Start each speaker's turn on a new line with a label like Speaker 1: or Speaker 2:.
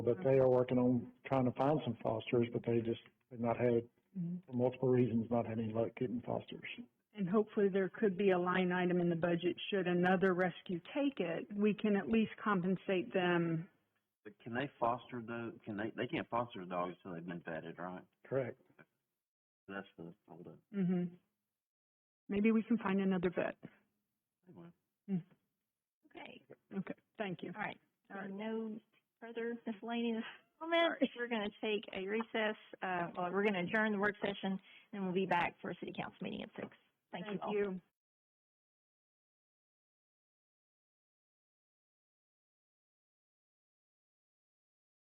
Speaker 1: But they are working on trying to find some fosters, but they just have not had, for multiple reasons, not had any luck getting fosters.
Speaker 2: Mm-hmm. And hopefully there could be a line item in the budget should another rescue take it, we can at least compensate them.
Speaker 3: But can they foster the? Can they? They can't foster the dogs until they've been vetted, right?
Speaker 1: Correct.
Speaker 3: That's the holdup.
Speaker 2: hmm Maybe we can find another vet.
Speaker 3: Anyway.
Speaker 4: Okay,
Speaker 2: Okay, thank you.
Speaker 4: all right. So no further miscellaneous comments. We're going to take a recess, uh, well, we're going to adjourn the work session, and we'll be back for a city council meeting at six. Thank you all.